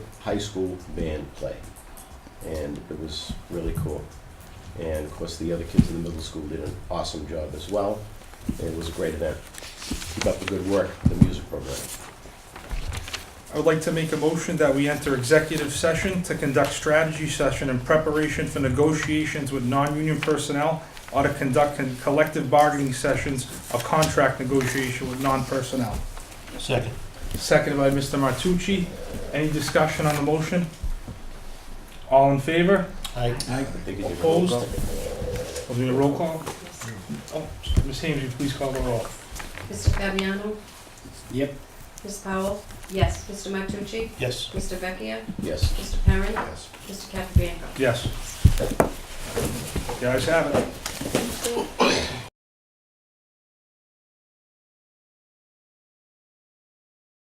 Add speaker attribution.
Speaker 1: high school band play. And it was really cool. And of course, the other kids in the middle school did an awesome job as well. It was a great event. Keep up the good work, the music program.
Speaker 2: I would like to make a motion that we enter executive session to conduct strategy session in preparation for negotiations with non-union personnel or to conduct con- collective bargaining sessions of contract negotiation with non-personnel.
Speaker 3: Second.
Speaker 2: Seconded by Mr. Martucci. Any discussion on the motion? All in favor?
Speaker 3: Aye.
Speaker 1: I think you did a roll
Speaker 2: Opposed?
Speaker 1: call.
Speaker 2: We'll do a roll call. Oh, Ms. Haynes, will you please call the roll.
Speaker 4: Mr. Fabiano?
Speaker 1: Yep.
Speaker 4: Ms. Powell? Yes. Mr. Martucci?
Speaker 3: Yes.
Speaker 4: Mr. Vecchia?
Speaker 1: Yes.
Speaker 4: Mr. Perrin?
Speaker 1: Yes.
Speaker 4: Mr. Capabianco?
Speaker 2: Yes. The ayes have it.